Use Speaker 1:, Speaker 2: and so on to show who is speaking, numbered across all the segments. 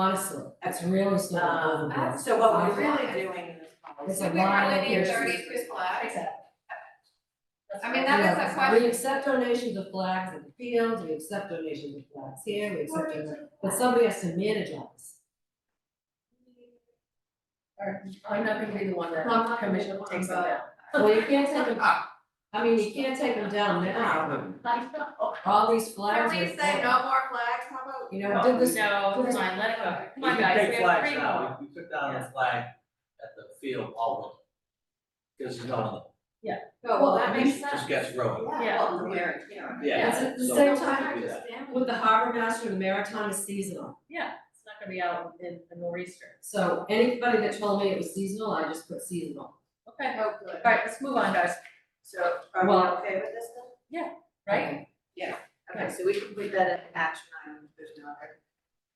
Speaker 1: Honestly, that's really sort of
Speaker 2: Um,
Speaker 1: overboard.
Speaker 2: so what we're really doing in this policy.
Speaker 1: It's a lot of
Speaker 3: We're
Speaker 1: years.
Speaker 3: thirty three flags, I mean,
Speaker 1: Yeah,
Speaker 3: that
Speaker 1: We
Speaker 3: is a question.
Speaker 1: accept donations of flags in the fields, we accept donations of flags here, we accept, donations- but somebody has to manage all this.
Speaker 4: I'm not gonna be the one
Speaker 1: No, I'm
Speaker 4: that
Speaker 1: not gonna be the
Speaker 4: commission
Speaker 1: one,
Speaker 4: takes them
Speaker 1: but-
Speaker 4: down.
Speaker 1: Well, you can't take them, I mean, you can't take them down now,
Speaker 3: Oh,
Speaker 1: all these
Speaker 3: Can
Speaker 1: flags are.
Speaker 3: we say no more flags, how about?
Speaker 1: You know, did this,
Speaker 4: No, it's fine, let it go. Come on,
Speaker 5: We can
Speaker 4: guys,
Speaker 5: take
Speaker 4: we have
Speaker 5: flags
Speaker 4: three more.
Speaker 5: now, we we took down the flag at the field all winter. Cause no one,
Speaker 3: Oh, well, that makes
Speaker 5: it
Speaker 3: sense.
Speaker 5: just gets ruined,
Speaker 4: Yeah.
Speaker 3: Well, we're, you know.
Speaker 5: yeah,
Speaker 1: It's at the
Speaker 5: so-
Speaker 1: same
Speaker 5: so
Speaker 1: time,
Speaker 5: we do that.
Speaker 1: with the harbor master, the maritime is seasonal,
Speaker 4: Yeah, it's not gonna be out in, in Easter.
Speaker 1: so anybody that told me it was seasonal, I just put seasonal.
Speaker 4: Okay,
Speaker 3: Oh, good.
Speaker 4: all right, let's move on, guys,
Speaker 3: So are we
Speaker 1: Well-
Speaker 3: okay with this then?
Speaker 4: right?
Speaker 3: Okay, so we can put that in action item, if there's no other.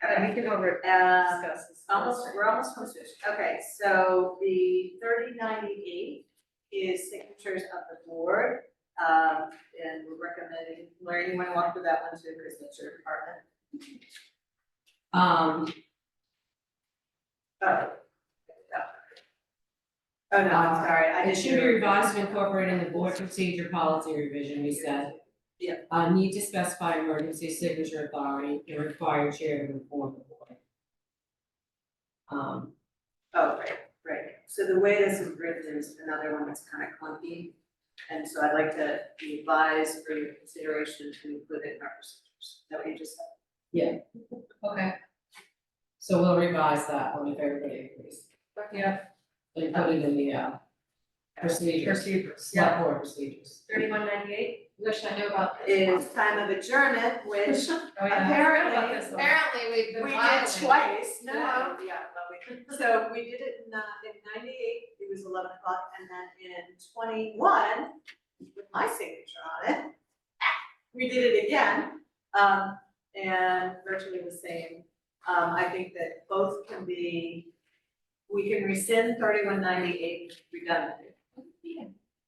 Speaker 4: Okay, we can over
Speaker 3: Uh,
Speaker 4: discuss this.
Speaker 3: Almost, we're almost on switch. Okay, so the thirty ninety-eight is signatures of the board. Um, and we're recommending, Larry, you wanna walk through that one to the signature department?
Speaker 1: Um,
Speaker 3: Oh. Oh, no, I'm sorry, I
Speaker 1: It
Speaker 3: didn't.
Speaker 1: should be revised to incorporate in the board procedure policy revision, we said.
Speaker 3: Yeah.
Speaker 1: Uh, need to specify emergency signature authority and require chair to inform the board. Um,
Speaker 3: Oh, right, right. So the way this is written is another one that's kind of clunky. And so I'd like to be advised for your consideration to include it in our procedures. That what you just said?
Speaker 4: Okay,
Speaker 1: so we'll revise that one if everybody agrees.
Speaker 4: yeah,
Speaker 1: They put it in the, uh, procedures,
Speaker 4: procedures, yeah,
Speaker 1: select board procedures.
Speaker 4: thirty-one ninety-eight, wish I knew about
Speaker 3: It
Speaker 4: this.
Speaker 3: is time of adjournment, which
Speaker 4: Oh, yeah.
Speaker 3: Apparently,
Speaker 4: About this one.
Speaker 3: apparently
Speaker 4: we've
Speaker 3: we did twice, no,
Speaker 4: No.
Speaker 3: yeah, well, we- so we did it in, uh, in ninety-eight, it was eleven o'clock, and then in twenty-one, with my signature on it, we did it again, um, and virtually the same. Um, I think that both can be, we can rescind thirty-one ninety-eight redundantly.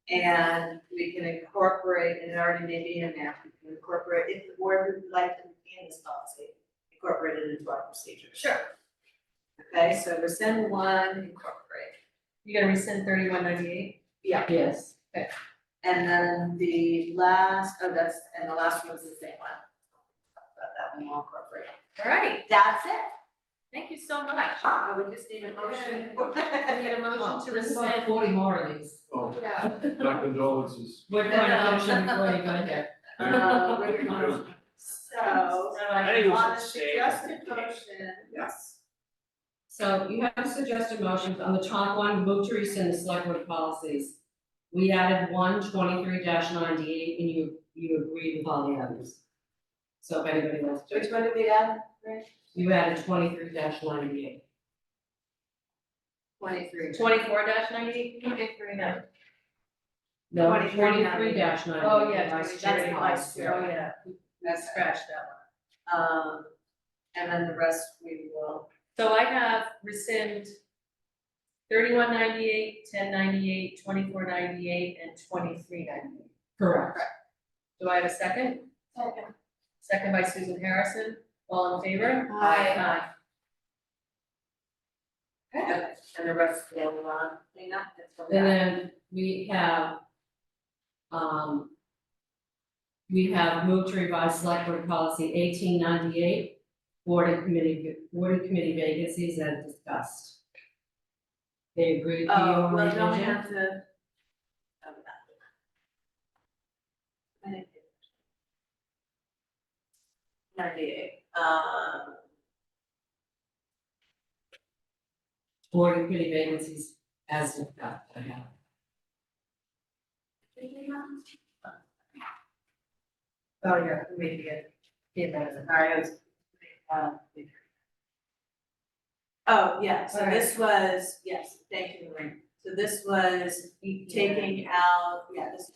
Speaker 3: And we can incorporate, and it already may be in there, we can incorporate, if the board would like to retain this policy, incorporate it into our procedure.
Speaker 4: Sure,
Speaker 3: Okay, so rescind one, incorporate.
Speaker 4: you gonna rescind thirty-one ninety-eight?
Speaker 1: Yes,
Speaker 3: And then the last, oh, that's, and the last one's the same one. But that one will incorporate.
Speaker 4: All right,
Speaker 3: That's it.
Speaker 4: thank you so much.
Speaker 3: I would just need a motion.
Speaker 4: I need a
Speaker 1: Oh,
Speaker 4: motion to
Speaker 1: there's about
Speaker 4: rescind.
Speaker 1: forty more of these.
Speaker 6: Oh,
Speaker 3: Yeah.
Speaker 6: my condolences.
Speaker 1: We're going to motion before you go there.
Speaker 3: Uh, we're gonna- So,
Speaker 4: No, I-
Speaker 5: think it was
Speaker 3: on the
Speaker 5: a shame.
Speaker 3: suggested motion. Yes.
Speaker 1: So you have suggested motions on the top one, move to rescind the select board policies. We added one 23 ninety-eight and you, you agreed with all the others. So if anybody wants to,
Speaker 3: Which one did we add? Rich?
Speaker 1: you added twenty-three ninety-eight.
Speaker 3: Twenty-three.
Speaker 4: Twenty-four dash ninety-eight, twenty-three now.
Speaker 1: No,
Speaker 3: 23
Speaker 1: twenty-three ninety-eight.
Speaker 4: Oh, yeah,
Speaker 3: That's
Speaker 4: Jerry,
Speaker 3: nice,
Speaker 4: oh, yeah,
Speaker 3: That's right.
Speaker 4: scratch that one.
Speaker 3: Um, and then the rest we will,
Speaker 4: So I have rescind thirty-one ninety-eight, ten ninety-eight, twenty-four ninety-eight, and twenty-three ninety-eight.
Speaker 1: Correct.
Speaker 4: Do I have a second?
Speaker 3: Second.
Speaker 4: Second by Susan Harrison, all in favor?
Speaker 3: Aye.
Speaker 4: Aye. Okay.
Speaker 3: and the rest will, uh, clean up. That's what we
Speaker 1: And
Speaker 3: have.
Speaker 1: then we have, um, we have moved to revise select board policy eighteen ninety-eight, board and committee, board and committee vacancies as discussed. They agree with you
Speaker 3: Oh,
Speaker 1: on
Speaker 3: well,
Speaker 1: the
Speaker 3: don't we
Speaker 1: agenda?
Speaker 3: have to. oh, no. Ninety-eight, um,
Speaker 1: board and committee vacancies as discussed, I have.
Speaker 3: did we have-
Speaker 4: Oh, yeah, maybe it, yeah, that is it.
Speaker 3: sorry, I was- um, Oh, yeah, so this was, yes, thank you, Lorraine, so this was taking out, yeah, this,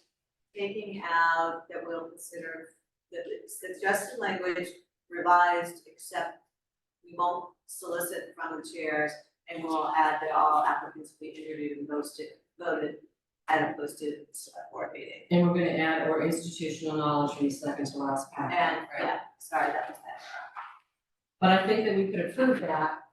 Speaker 3: taking out that we'll consider the the suggested language revised, except we won't solicit from the chairs, and we'll add that all applicants will be interviewed and posted, voted at a posted select board meeting.
Speaker 1: And we're gonna add or institutional knowledge from the second to last paragraph.
Speaker 3: And, yeah, sorry, that was that.
Speaker 1: But I think that we could approve that